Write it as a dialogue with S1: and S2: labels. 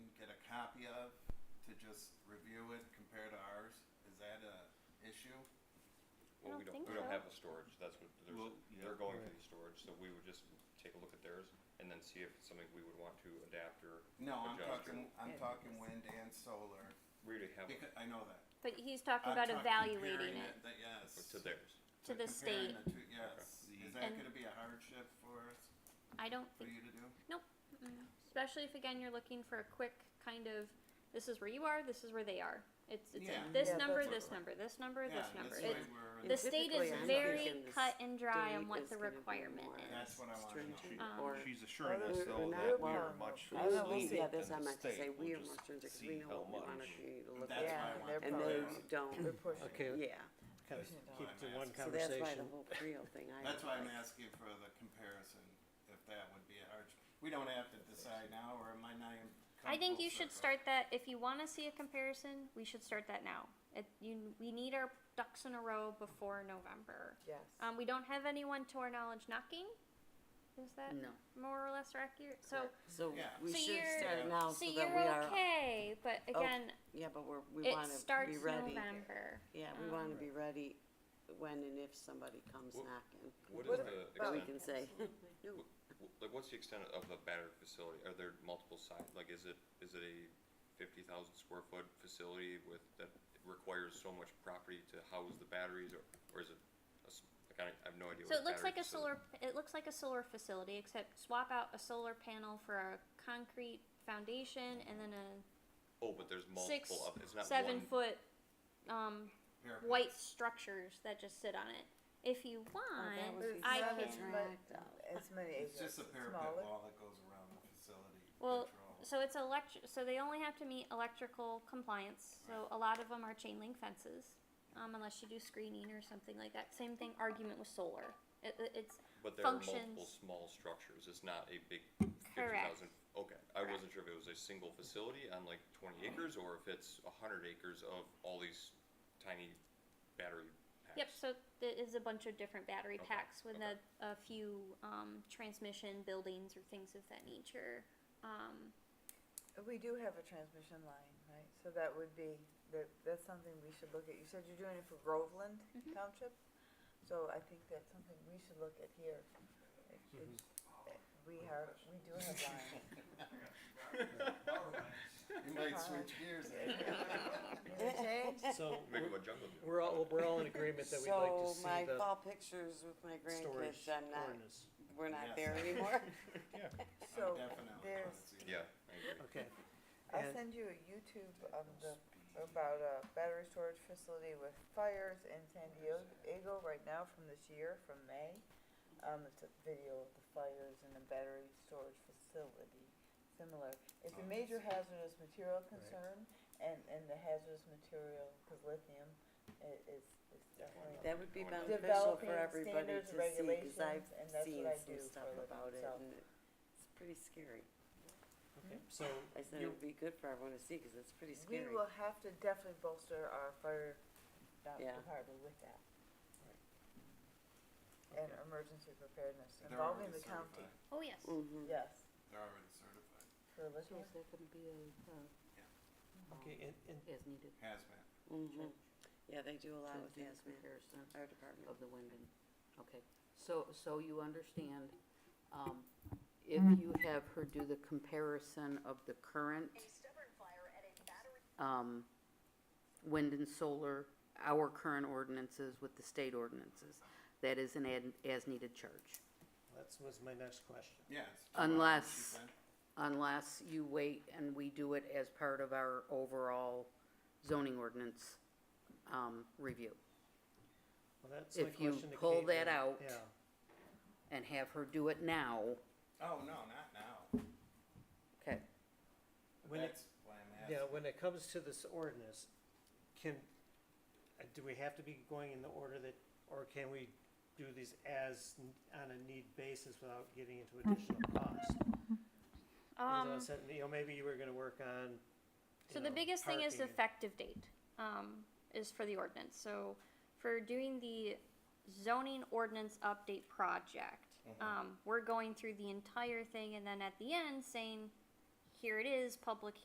S1: to just review it, compare to ours? Is that a issue?
S2: Well,
S3: don't
S2: we don't,
S3: think
S2: we don't
S3: so.
S2: have the storage, that's what, there's,
S1: Well, yeah.
S2: they're going for
S4: Right.
S2: the storage, so we would just take a look at theirs and then see if it's something we would want to adapt or,
S1: No, I'm
S2: Adjuster.
S1: talking, I'm
S5: Yeah.
S1: talking wind and solar,
S2: we already have it
S1: because, I know that.
S3: But he's talking
S1: I'm
S3: about
S1: talking-
S3: evaluating
S1: comparing
S3: it
S1: that- Yes.
S2: to theirs.
S3: to the state.
S1: Comparing the two, yes. Is that
S3: And-
S1: gonna be a hardship for us,
S3: I don't
S1: for
S3: think,
S1: you to do?
S3: mm, especially if again you're looking for a quick kind of, this is where you are, this is where they are. It's it's a
S1: Yeah.
S3: this
S5: Yeah,
S3: number,
S5: that's-
S3: this number, this number,
S1: Yeah,
S3: this number.
S1: this
S3: It's,
S1: way we're-
S5: And
S3: the state is
S5: typically, I'm
S3: very
S5: thinking the
S3: cut and dry on
S5: state
S3: what
S5: is
S3: the
S5: gonna be
S3: requirement
S5: more
S3: is.
S1: That's what I wanna know.
S5: stringent
S3: Um,
S5: or-
S6: She's assuring us
S5: Or- or
S6: though
S5: not,
S6: that we are
S5: well,
S6: much
S5: I don't know,
S6: less
S5: we'll see, yeah,
S6: lenient
S5: that's
S6: than
S5: what I
S6: the
S5: meant to say,
S6: state,
S5: we
S6: we'll
S5: are more
S6: just
S5: stringent, cause we
S2: see
S5: know
S2: how
S5: what we want
S2: much.
S5: to look
S1: That's why I
S5: at,
S7: Yeah,
S1: want.
S7: they're
S1: to
S5: and
S1: know.
S7: probably-
S5: those don't, yeah.
S7: They're pushing.
S4: Okay, kind of
S1: That's why
S4: keep
S1: I'm
S4: to one
S1: asking.
S5: So that's why the
S4: conversation.
S5: whole Creel thing, I
S1: That's
S5: don't
S1: why I'm
S5: like.
S1: asking for the comparison, if that would be a hardship. We don't have to decide now, or am I not even?
S3: I think
S1: come
S3: you
S1: full
S3: should
S1: circle?
S3: start that if you want to see a comparison. We should start that now. It, you, we need our ducks in a row before November.
S7: Yes.
S3: Um, we don't have anyone to our knowledge knocking. Is that
S5: No.
S3: more or less accurate? So,
S5: Correct. So
S1: Yeah.
S5: we
S3: So
S5: should
S3: you're-
S5: start now so
S3: so
S5: that
S3: you're
S5: we are,
S3: okay, but again,
S5: yeah, but we're, we
S3: it
S5: wanna
S3: starts um,
S5: be ready.
S3: November.
S5: Yeah, we wanna be ready when and if somebody comes
S2: What-
S5: knocking.
S2: What is
S7: What
S2: the
S5: But we
S2: extent,
S5: can say, no,
S2: w- like, what's the extent of the battery facility, are there multiple sites, like, is it, is it a fifty thousand square foot facility with, that requires so much property to house the batteries, or, or is it, a s- like, I don't- I have no idea
S3: So
S2: what
S3: it looks
S2: battery
S3: like a
S2: facility-
S3: solar. It looks like a solar facility, except swap out a solar panel for a concrete foundation and then a
S2: Oh, but there's
S3: six,
S2: multiple of, it's not
S3: seven
S2: one,
S3: foot um,
S1: Here.
S3: white structures that just sit on it. If you want,
S5: that was
S3: I
S5: before.
S3: can.
S5: That's right.
S7: As many acres.
S1: It's just a parapet
S7: smaller.
S1: wall that goes around the facility
S3: Well,
S1: control.
S3: So it's electric. So they only have to meet electrical compliance. So a lot of them are chain link fences, um, unless you do screening or something like that. Same thing. Argument with solar. It, it, it's
S2: but there are multiple
S3: functions.
S2: small structures, it's not a big fifty
S3: correct. Mm-hmm.
S2: thousand. Okay, I wasn't sure if it was a single facility on like twenty acres, or if it's a hundred acres of all these tiny battery packs.
S3: Yep, so there is a bunch of different battery
S2: Okay,
S3: packs with
S2: okay.
S3: a, a few um, transmission buildings or things of that nature. Um,
S7: We do have a transmission line, right? So that would be, that, that's something we should look at. You said you're doing it for Groveland
S5: Mm-hmm.
S3: Mhm.
S7: Township? So I think that's something we should look at here. It- it's- eh, We are, we do have lines.
S1: You might switch gears there.
S7: You know, change?
S4: So
S2: Maybe
S4: we're-
S2: a jungle gym.
S4: we're all, we're all in agreement that we'd like to
S5: so my
S4: see the
S5: fall pictures with my
S4: storage
S5: grandkids, I'm not,
S4: ordinance.
S5: we're not
S1: Yes.
S5: there anymore.
S1: I'm
S7: So
S1: definitely gonna
S7: there's-
S1: see that.
S2: Yeah, I agree.
S4: Okay,
S7: I'll
S4: And-
S7: send you a YouTube of the, about a battery storage facility with fires in San Diego right now from this year, from May. Um, it's a video of the fires in the battery storage facility, similar. It's
S1: Oh,
S7: a major hazardous material concern, and, and the hazardous material, cause lithium i- is, is definitely.
S5: That would be
S2: I wouldn't-
S5: beneficial for
S7: Developing
S5: everybody
S7: standards,
S5: to see, cause I've
S7: regulations, and that's
S5: seen
S7: what I do
S5: some stuff
S7: for a living,
S5: about it,
S7: so.
S5: and it's pretty scary.
S4: okay, so
S5: I said it
S4: you,
S5: would be good for everyone to see, cause it's pretty
S7: We
S5: scary.
S7: will have to definitely bolster our fire uh,
S5: Yeah.
S7: department with that.
S4: okay,
S7: and emergency preparedness
S1: They're
S7: involving
S1: already
S7: the county.
S1: certified.
S3: oh, yes.
S5: Mm-hmm.
S7: Yes,
S1: They're already certified,
S7: for lithium.
S5: that gonna be a,
S4: okay, and, and
S8: Um, as needed.
S1: hazmat.
S5: Mm-hmm, yeah, they do a lot
S8: To
S5: with
S8: do the
S5: hazmat,
S8: comparison
S5: our department.
S8: of the wind and, okay. So, so you understand, um, if you have her do the comparison of the current, um, wind and solar, our current ordinances with the state ordinances, that is an ad, as-needed charge.
S4: that's was my next question.
S1: Yeah. it's-
S8: Unless-
S1: She said.
S8: unless you wait and we do it as part of our overall zoning ordinance, um, review.
S4: Well, that's my
S8: If you
S4: question to
S8: pull that
S4: Caitlin.
S8: out,
S4: Yeah,
S8: And have her do it now,
S1: Oh, no, not now.
S8: okay,
S4: when it,
S1: That's why I'm
S4: yeah,
S1: asking.
S4: when it comes to this ordinance, can, uh, do we have to be going in the order that, or can we do these as, n- on a need basis without getting into additional cost? As I
S3: Um,
S4: said, you know, maybe you were gonna work on, you
S3: so the
S4: know,
S3: biggest thing is the
S4: parking.
S3: effective date um, is for the ordinance. So for doing the zoning ordinance update project,
S1: Mhm.
S3: um, we're going through the entire thing and then at the end saying, here it is, public